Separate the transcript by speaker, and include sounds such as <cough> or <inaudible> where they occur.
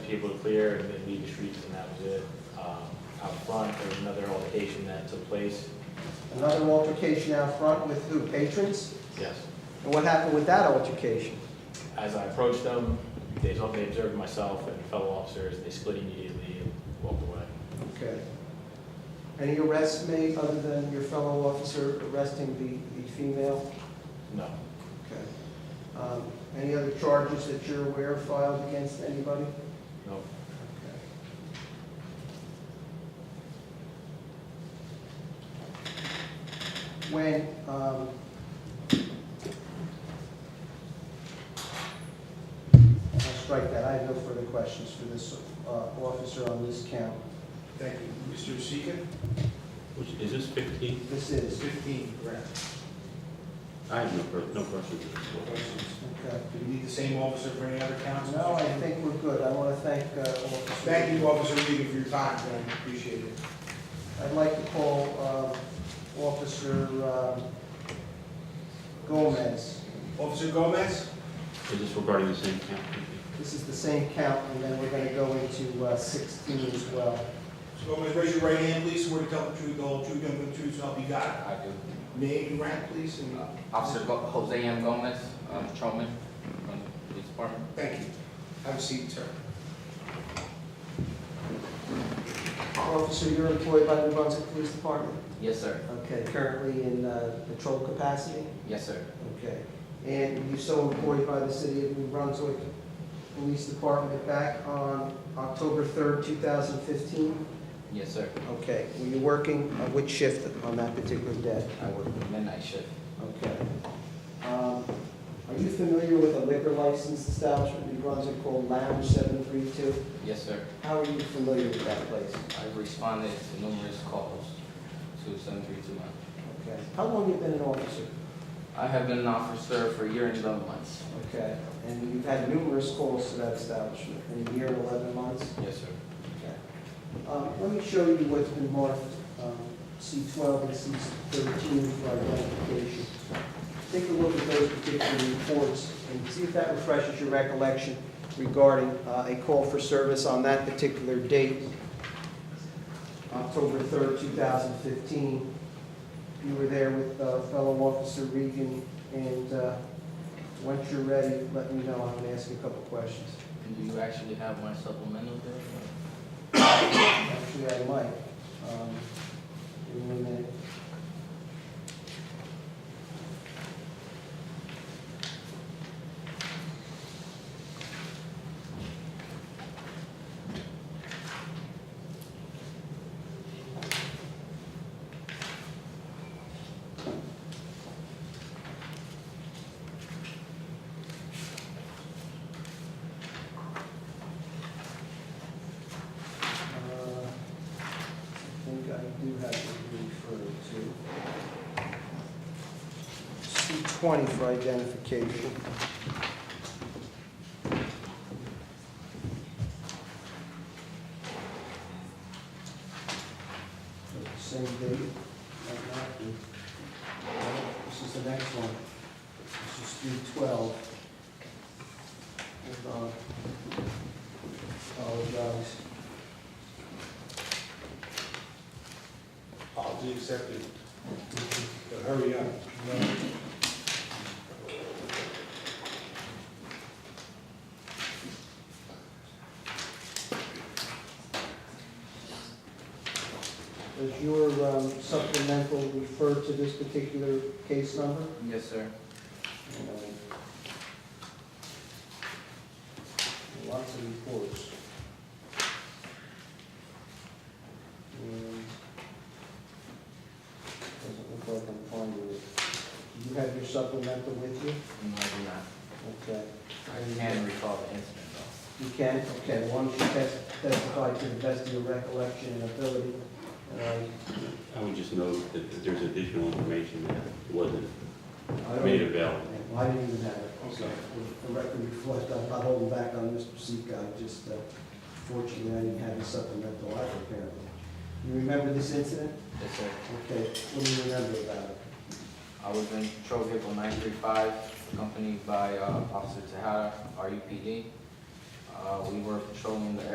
Speaker 1: people to clear and then leave the streets, and that was it. Um, Out front, there was another altercation that took place,
Speaker 2: Another altercation out front with who, patrons?
Speaker 1: yes.
Speaker 2: And what happened with that altercation?
Speaker 1: As I approached them, they they observed myself and fellow officers, they split immediately and walked away.
Speaker 2: Okay. Any arrests made other than your fellow officer arresting the, the female?
Speaker 1: No,
Speaker 2: Okay. Um, Any other charges that you're aware of filed against anybody?
Speaker 1: no,
Speaker 2: When, um, I'll strike that, I have no further questions for this uh, officer on this count.
Speaker 3: Thank you. Mr. Sheehan?
Speaker 1: which, is this fifteen?
Speaker 2: This is,
Speaker 3: Fifteen, correct.
Speaker 4: I have no, per- no questions.
Speaker 3: Questions?
Speaker 2: okay.
Speaker 3: Do you need the same officer for any other counts?
Speaker 2: No, I think we're good, I want to thank uh, Officer.
Speaker 3: Thank you, Officer Regan, for your time, man. Appreciate it.
Speaker 2: I'd like to call uh, Officer um, Gomez.
Speaker 3: Officer Gomez?
Speaker 4: Is this regarding the same count?
Speaker 2: This is the same count, and then we're going to go into uh, 16 as well.
Speaker 3: Mr. Gomez, raise your right hand, please. Swear to tell the truth, the whole truth, nothing but the truth, so help you God.
Speaker 5: I do.
Speaker 3: Name and rank, please, and
Speaker 5: Uh, Officer Go- Jose M. Gomez, um, patrolman from the police department.
Speaker 3: thank you. Have a seat, sir.
Speaker 2: Officer, you're employed by the Brunswick Police Department?
Speaker 5: Yes, sir.
Speaker 2: Okay, currently in uh, patrol capacity?
Speaker 5: Yes, sir.
Speaker 2: Okay. And you're so employed by the City of New Brunswick Police Department back on October 3rd, 2015?
Speaker 5: Yes, sir.
Speaker 2: Okay, were you working, uh, which shift on that particular day?
Speaker 5: I work the midnight shift.
Speaker 2: Okay. Um, Are you familiar with a liquor license establishment in New Brunswick called Lounge 732?
Speaker 5: Yes, sir.
Speaker 2: How are you familiar with that place?
Speaker 5: I've responded to numerous calls to 7321.
Speaker 2: Okay. How long you been an officer?
Speaker 5: I have been an officer for a year and 11 months.
Speaker 2: Okay. And you've had numerous calls to that establishment in a year and 11 months?
Speaker 5: Yes, sir.
Speaker 2: Okay. Um, Let me show you what's been marked um, C12 and C13 for identification. Take a look at those particular reports and see if that refreshes your recollection regarding uh, a call for service on that particular date, October 3rd, 2015. You were there with uh, fellow Officer Regan, and uh, once you're ready, let me know, I'm going to ask you a couple questions.
Speaker 5: Do you actually have my supplemental
Speaker 2: <coughs>
Speaker 5: there?
Speaker 2: Actually, I might. Um, Give me a minute. Uh, I think I do have to refer to C twenty for identification. Same date, might not be. This is the next one. This is three twelve. Hold on. Apologize.
Speaker 3: Apology accepted. But hurry up. No.
Speaker 2: Does your um, supplemental refer to this particular case number?
Speaker 5: Yes, sir.
Speaker 2: Lots of reports. Um, Doesn't look like I'm finding it. Do you have your supplemental with you?
Speaker 5: No, I do not.
Speaker 2: Okay.
Speaker 5: I can recall the incident, though.
Speaker 2: You can, okay, why don't you tes- testify to the best of your recollection and ability? And I-
Speaker 4: I would just note that that there's additional information that wasn't
Speaker 2: I don't-
Speaker 4: made available.
Speaker 2: I didn't even have it.
Speaker 3: Okay.
Speaker 2: The record reflects, I'm not holding back on Mr. Sika, I just uh, fortunately I didn't have a supplemental either apparently. You remember this incident?
Speaker 5: Yes, sir.
Speaker 2: Okay, what do you remember about it?
Speaker 5: I was in patrol vehicle nine three five, accompanied by E uh, Officer Tejada, RUPD. Uh, Uh, we were patrolling the